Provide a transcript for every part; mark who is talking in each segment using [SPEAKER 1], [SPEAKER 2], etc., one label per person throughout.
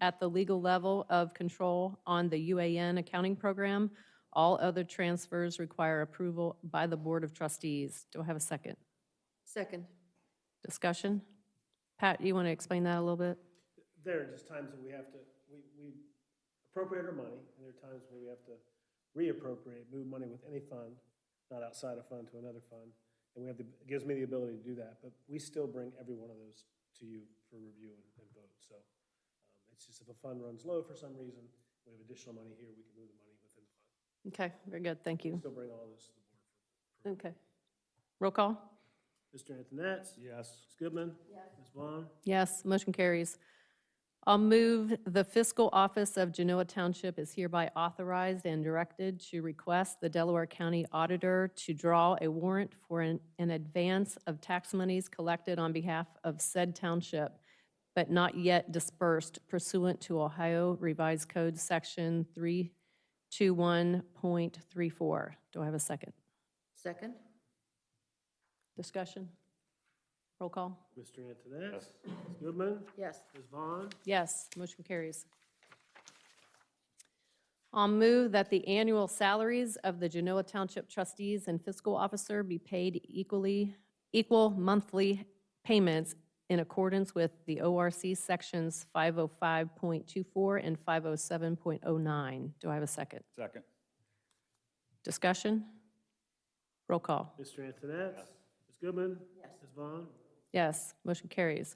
[SPEAKER 1] at the legal level of control on the UAN accounting program. All other transfers require approval by the Board of Trustees. Do I have a second?
[SPEAKER 2] Second.
[SPEAKER 1] Discussion? Pat, you want to explain that a little bit?
[SPEAKER 3] there are just times that we have to, we, we appropriate our money, and there are times where we have to reappropriate, move money with any fund, not outside a fund to another fund, and we have the, it gives me the ability to do that, but we still bring every one of those to you for review and, and vote, so. um, It's just if a fund runs low for some reason, we have additional money here, we can move the money within the fund.
[SPEAKER 1] Okay, very good, thank
[SPEAKER 3] We
[SPEAKER 1] you.
[SPEAKER 3] Still bring all this to the board.
[SPEAKER 1] Okay. Roll call?
[SPEAKER 3] Mr. Antoinette?
[SPEAKER 4] Yes.
[SPEAKER 3] Ms. Goodman? Yes. Ms. Vaughn?
[SPEAKER 1] Yes, motion carries. I'll move the fiscal office of Genoa Township is hereby authorized and directed to request the Delaware County Auditor to draw a warrant for an, an advance of tax monies collected on behalf of said township, but not yet dispersed pursuant to Ohio Revised Code Section 321.34. Do I have a second?
[SPEAKER 2] Second?
[SPEAKER 1] Discussion? Roll call?
[SPEAKER 3] Mr. Antoinette? Ms. Goodman?
[SPEAKER 2] Yes.
[SPEAKER 3] Ms. Vaughn?
[SPEAKER 1] Yes, motion carries. I'll move that the annual salaries of the Genoa Township trustees and fiscal officer be paid equally, equal monthly payments in accordance with the ORC Sections 505.24 and 507.09. Do I have a second?
[SPEAKER 4] Second.
[SPEAKER 1] Discussion? Roll call.
[SPEAKER 3] Mr. Antoinette? Ms. Goodman?
[SPEAKER 2] Yes.
[SPEAKER 3] Ms. Vaughn?
[SPEAKER 1] Yes, motion carries.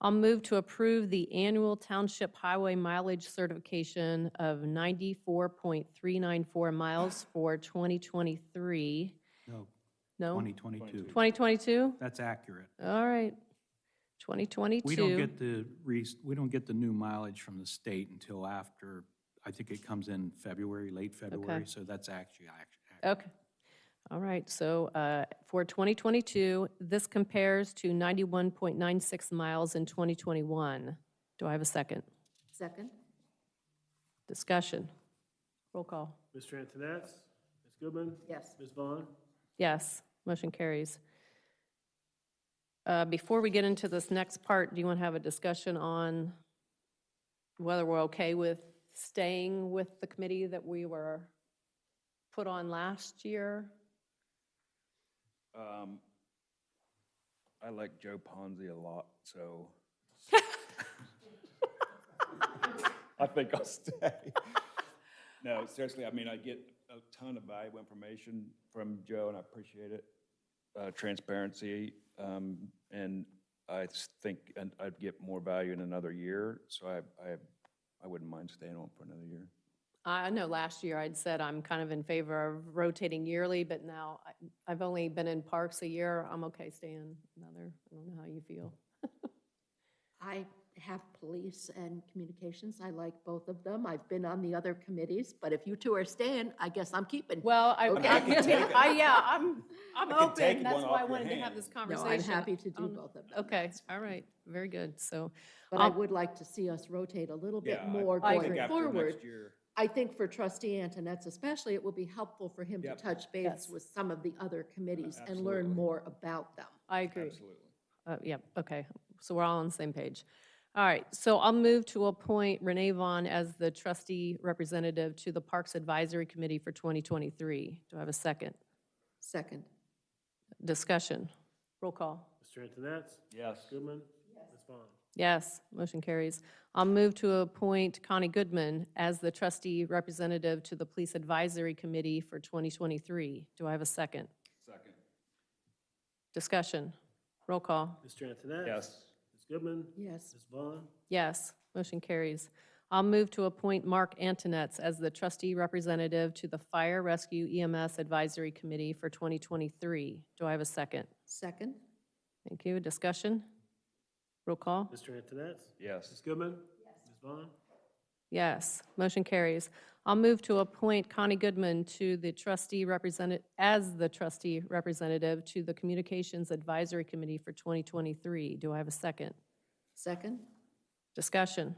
[SPEAKER 1] I'll move to approve the annual township highway mileage certification of 94.394 miles for 2023.
[SPEAKER 5] No,
[SPEAKER 1] No?
[SPEAKER 5] 2022.
[SPEAKER 1] 2022?
[SPEAKER 5] That's accurate.
[SPEAKER 1] All right. 2022.
[SPEAKER 5] We don't get the, re- we don't get the new mileage from the state until after, I think it comes in February, late February, so that's actually, ac- ac-
[SPEAKER 1] Okay. All right, so uh, for 2022, this compares to 91.96 miles in 2021. Do I have a second?
[SPEAKER 2] Second?
[SPEAKER 1] Discussion. Roll call.
[SPEAKER 3] Mr. Antoinette? Ms. Goodman?
[SPEAKER 2] Yes.
[SPEAKER 3] Ms. Vaughn?
[SPEAKER 1] Yes, motion carries. Uh, Before we get into this next part, do you want to have a discussion on whether we're okay with staying with the committee that we were put on last year?
[SPEAKER 4] Um, I like Joe Ponzi a lot, so. I think I'll stay. No, seriously, I mean, I get a ton of valuable information from Joe, and I appreciate it. Uh, transparency, um, and I s- think, and I'd get more value in another year, so I, I, I wouldn't mind staying on for another year.
[SPEAKER 1] I I know last year I'd said I'm kind of in favor of rotating yearly, but now I- I've only been in parks a year. I'm okay staying another. I don't know how you feel.
[SPEAKER 2] I have police and communications. I like both of them. I've been on the other committees, but if you two are staying, I guess I'm keeping.
[SPEAKER 1] Well, I,
[SPEAKER 2] Okay.
[SPEAKER 1] I, I- yeah, I'm, I'm
[SPEAKER 4] I can
[SPEAKER 1] open.
[SPEAKER 4] take
[SPEAKER 1] That's
[SPEAKER 4] one
[SPEAKER 1] why
[SPEAKER 4] off
[SPEAKER 1] I
[SPEAKER 4] your
[SPEAKER 1] wanted to have
[SPEAKER 4] hand.
[SPEAKER 1] this
[SPEAKER 2] No,
[SPEAKER 1] conversation.
[SPEAKER 2] I'm happy to do
[SPEAKER 1] Um,
[SPEAKER 2] both of them.
[SPEAKER 1] Okay, Um, all right, very good. So,
[SPEAKER 2] But I
[SPEAKER 1] I'll-
[SPEAKER 2] would like to see us rotate a little
[SPEAKER 4] Yeah,
[SPEAKER 2] bit
[SPEAKER 4] I-
[SPEAKER 2] more
[SPEAKER 1] I
[SPEAKER 2] going
[SPEAKER 1] agree.
[SPEAKER 4] Think after
[SPEAKER 2] forward.
[SPEAKER 4] next year.
[SPEAKER 2] I think for trustee Antonette's especially, it will be helpful for him to
[SPEAKER 4] Yep.
[SPEAKER 2] touch base
[SPEAKER 1] Yes.
[SPEAKER 2] with some of the other committees and
[SPEAKER 4] Absolutely.
[SPEAKER 2] learn more about them.
[SPEAKER 1] I agree.
[SPEAKER 4] Absolutely.
[SPEAKER 1] Uh, Yep, okay, so we're all on the same page. All right, so I'll move to appoint Renee Vaughn as the trustee representative to the Parks Advisory Committee for 2023. Do I have a second?
[SPEAKER 2] Second.
[SPEAKER 1] Discussion? Roll call.
[SPEAKER 3] Mr. Antoinette?
[SPEAKER 4] Yes.
[SPEAKER 3] Ms. Goodman? Ms. Vaughn?
[SPEAKER 1] Yes, motion carries. I'll move to appoint Connie Goodman as the trustee representative to the Police Advisory Committee for 2023. Do I have a second?
[SPEAKER 4] Second.
[SPEAKER 1] Discussion. Roll call.
[SPEAKER 3] Mr. Antoinette?
[SPEAKER 4] Yes.
[SPEAKER 3] Ms. Goodman?
[SPEAKER 2] Yes.
[SPEAKER 3] Ms. Vaughn?
[SPEAKER 1] Yes, motion carries. I'll move to appoint Mark Antonetts as the trustee representative to the Fire Rescue EMS Advisory Committee for 2023. Do I have a second?
[SPEAKER 2] Second.
[SPEAKER 1] Thank you. Discussion. Roll call.
[SPEAKER 3] Mr. Antoinette? Ms.
[SPEAKER 4] Yes.
[SPEAKER 3] Goodman? Ms. Vaughn?
[SPEAKER 1] Yes, motion carries. I'll move to appoint Connie Goodman to the trustee representative, as the trustee representative to the Communications Advisory Committee for 2023. Do I have a second?
[SPEAKER 2] Second.
[SPEAKER 1] Discussion.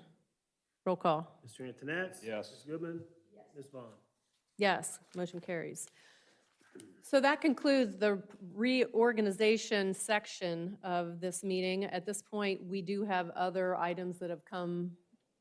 [SPEAKER 1] Roll call.
[SPEAKER 3] Mr. Antoinette?
[SPEAKER 4] Yes.
[SPEAKER 3] Ms. Goodman? Ms. Vaughn?
[SPEAKER 1] Yes, motion carries. So that concludes the reorganization section of this meeting. At this point, we do have other items that have come